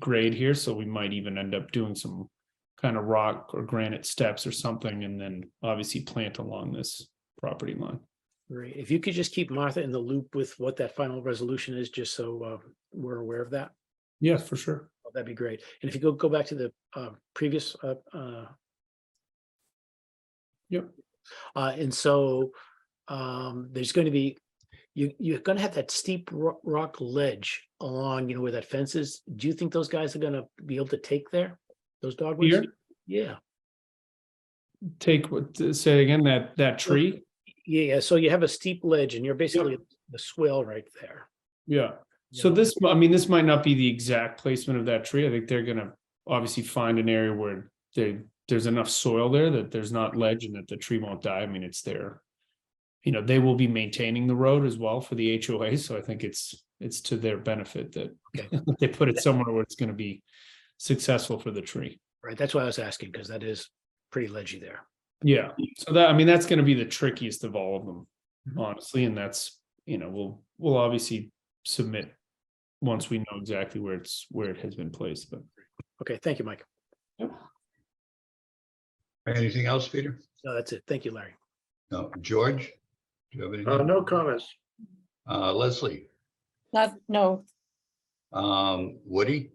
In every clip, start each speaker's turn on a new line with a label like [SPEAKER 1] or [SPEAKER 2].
[SPEAKER 1] grade here, so we might even end up doing some kind of rock or granite steps or something, and then obviously plant along this property line.
[SPEAKER 2] Great. If you could just keep Martha in the loop with what that final resolution is, just so uh, we're aware of that, oh,
[SPEAKER 1] Yes, for sure.
[SPEAKER 2] that'd be great. And if you go, go back to the uh, previous. uh, uh,
[SPEAKER 1] Yep.
[SPEAKER 2] Uh, And so um, there's going to be, you, you're going to have that steep ro- rock ledge along, you know, where that fence is. Do you think those guys are going to be able to take there? Those dogwoods?
[SPEAKER 1] Here?
[SPEAKER 2] Yeah,
[SPEAKER 1] Take what, say again, that, that tree?
[SPEAKER 2] yeah. So you have a steep ledge and you're basically the swell right there.
[SPEAKER 1] Yeah. So
[SPEAKER 2] Yeah.
[SPEAKER 1] this, I mean, this might not be the exact placement of that tree. I think they're gonna obviously find an area where they, there's enough soil there that there's not ledge and that the tree won't die. I mean, it's there. You know, they will be maintaining the road as well for the HOA, so I think it's, it's to their benefit that
[SPEAKER 2] Okay.
[SPEAKER 1] they put it somewhere where it's gonna be successful for the tree.
[SPEAKER 2] Right, that's why I was asking, because that is pretty ledgy there.
[SPEAKER 1] Yeah, so that, I mean, that's gonna be the trickiest of all of them,
[SPEAKER 2] Mhm.
[SPEAKER 1] honestly, and that's, you know, we'll, we'll obviously submit. Once we know exactly where it's, where it has been placed, but.
[SPEAKER 2] Okay, thank you, Mike.
[SPEAKER 3] Anything else, Peter?
[SPEAKER 2] No, that's it. Thank you, Larry.
[SPEAKER 3] No. George? Do you have
[SPEAKER 4] Uh,
[SPEAKER 3] anything?
[SPEAKER 4] no comments.
[SPEAKER 3] Uh, Leslie?
[SPEAKER 5] Not, no,
[SPEAKER 3] Um, Woody?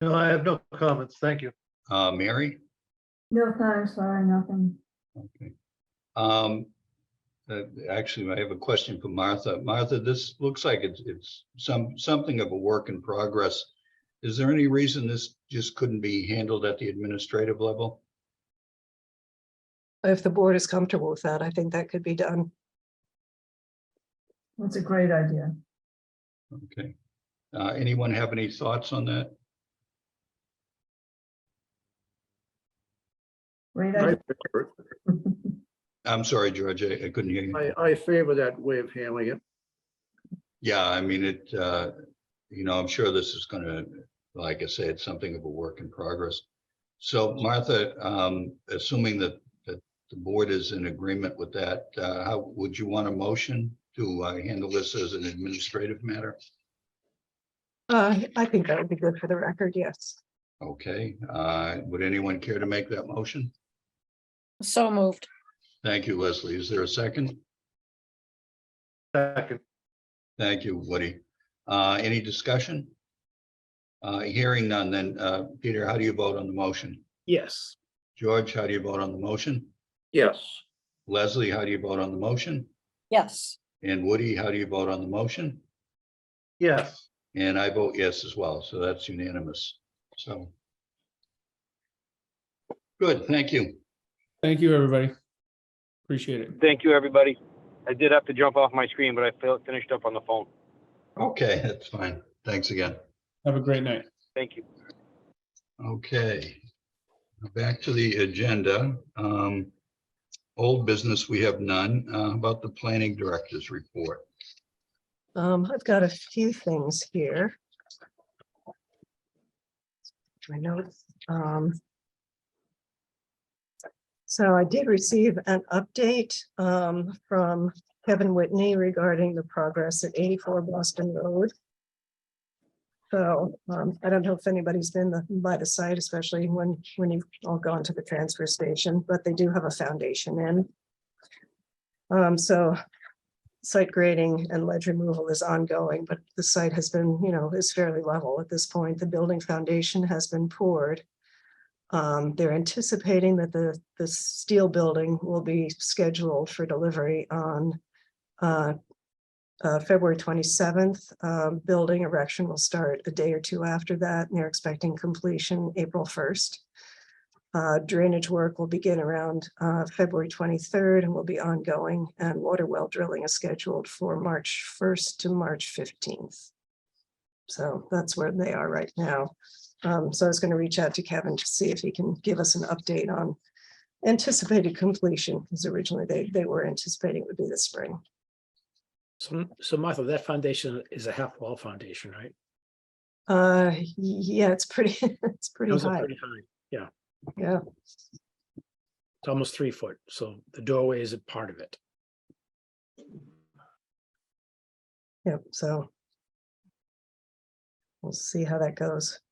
[SPEAKER 4] No, I have no comments. Thank you.
[SPEAKER 3] Uh, Mary?
[SPEAKER 6] No, sorry, sorry, nothing.
[SPEAKER 3] Okay. Um, uh, actually, I have a question for Martha. Martha, this looks like it's, it's some, something of a work in progress. Is there any reason this just couldn't be handled at the administrative level?
[SPEAKER 7] If the board is comfortable with that, I think that could be done.
[SPEAKER 6] That's a great idea.
[SPEAKER 3] Okay. Uh, anyone have any thoughts on that?
[SPEAKER 6] Great
[SPEAKER 4] I
[SPEAKER 6] idea.
[SPEAKER 4] favor it.
[SPEAKER 3] I'm sorry, George, I I couldn't hear you.
[SPEAKER 4] I, I favor that way of handling it.
[SPEAKER 3] Yeah, I mean, it, uh, you know, I'm sure this is gonna, like I said, something of a work in progress. So Martha, um, assuming that, that the board is in agreement with that, uh, how, would you want a motion to uh, handle this as an administrative matter?
[SPEAKER 7] Uh, I think that would be good for the record, yes.
[SPEAKER 3] Okay, uh, would anyone care to make that motion?
[SPEAKER 5] so moved.
[SPEAKER 3] Thank you, Leslie. Is there a second?
[SPEAKER 4] Second.
[SPEAKER 3] Thank you, Woody. Uh, any discussion? Uh, hearing none, then, uh, Peter, how do you vote on the motion?
[SPEAKER 2] Yes,
[SPEAKER 3] George, how do you vote on the motion?
[SPEAKER 4] Yes.
[SPEAKER 3] Leslie, how do you vote on the motion?
[SPEAKER 5] Yes,
[SPEAKER 3] And Woody, how do you vote on the motion?
[SPEAKER 4] Yes.
[SPEAKER 3] And I vote yes as well, so that's unanimous, so. Good, thank you.
[SPEAKER 1] Thank you, everybody. Appreciate it.
[SPEAKER 8] Thank you, everybody. I did have to jump off my screen, but I fil- finished up on the phone.
[SPEAKER 3] Okay, that's fine. Thanks again.
[SPEAKER 1] Have a great night.
[SPEAKER 8] Thank you.
[SPEAKER 3] Okay. Back to the agenda. Um, old business, we have none, uh, about the planning director's report.
[SPEAKER 7] Um, I've got a few things here. My notes, um. So I did receive an update, um, from Kevin Whitney regarding the progress at eighty-four Boston Road. So, um, I don't know if anybody's been the- by the site, especially when, when you've all gone to the transfer station, but they do have a foundation in. Um, so site grading and ledge removal is ongoing, but the site has been, you know, is fairly level at this point. The building foundation has been poured. Um, they're anticipating that the, the steel building will be scheduled for delivery on uh, uh, February twenty-seventh. Um, building erection will start a day or two after that, and they're expecting completion April first. Uh, drainage work will begin around uh, February 23rd and will be ongoing, and water well drilling is scheduled for March 1st to March 15th. So that's where they are right now. Um, So I was going to reach out to Kevin to see if he can give us an update on anticipated completion, because originally they, they were anticipating it would be this spring.
[SPEAKER 2] so, so Martha, that foundation is a half wall foundation, right?
[SPEAKER 7] Uh, y- Yeah, it's pretty, it's pretty
[SPEAKER 2] Those are
[SPEAKER 7] high,
[SPEAKER 2] pretty high.
[SPEAKER 7] yeah.
[SPEAKER 2] It's almost three foot, so the doorway is a part of it.
[SPEAKER 7] Yep, so. We'll see how that goes.